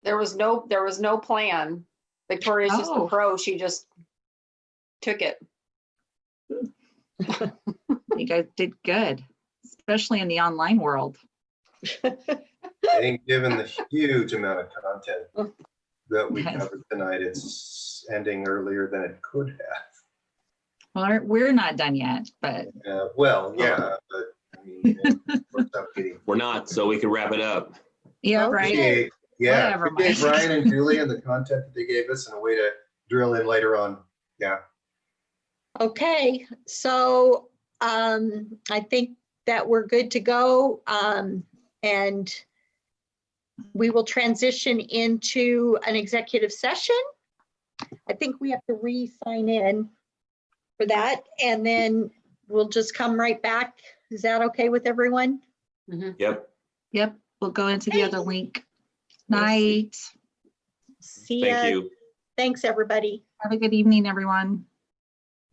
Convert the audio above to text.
There was no, there was no plan. Victoria's just a Oh. pro. She just took it. You guys did good, especially in the online world. I think given the huge amount of content that we Yes. covered tonight, it's ending earlier than it could have. Well, aren't- we're not done yet, but Uh, Well, yeah, but I mean, it worked out getting- We're not, so we can wrap it up. yeah, Okay. right. Yeah, Yeah, Whatever, we gave Mike. Ryan and Julian the content that they gave us and a way to drill in later on. Yeah, Okay, so um, I think that we're good to go. Um, and we will transition into an executive session. I think we have to re-sign in for that, and then we'll just come right back. Is that okay with everyone? Yep. Yep, we'll go into the other link. Night. See Thank ya. you. Thanks, everybody. Have a good evening, everyone.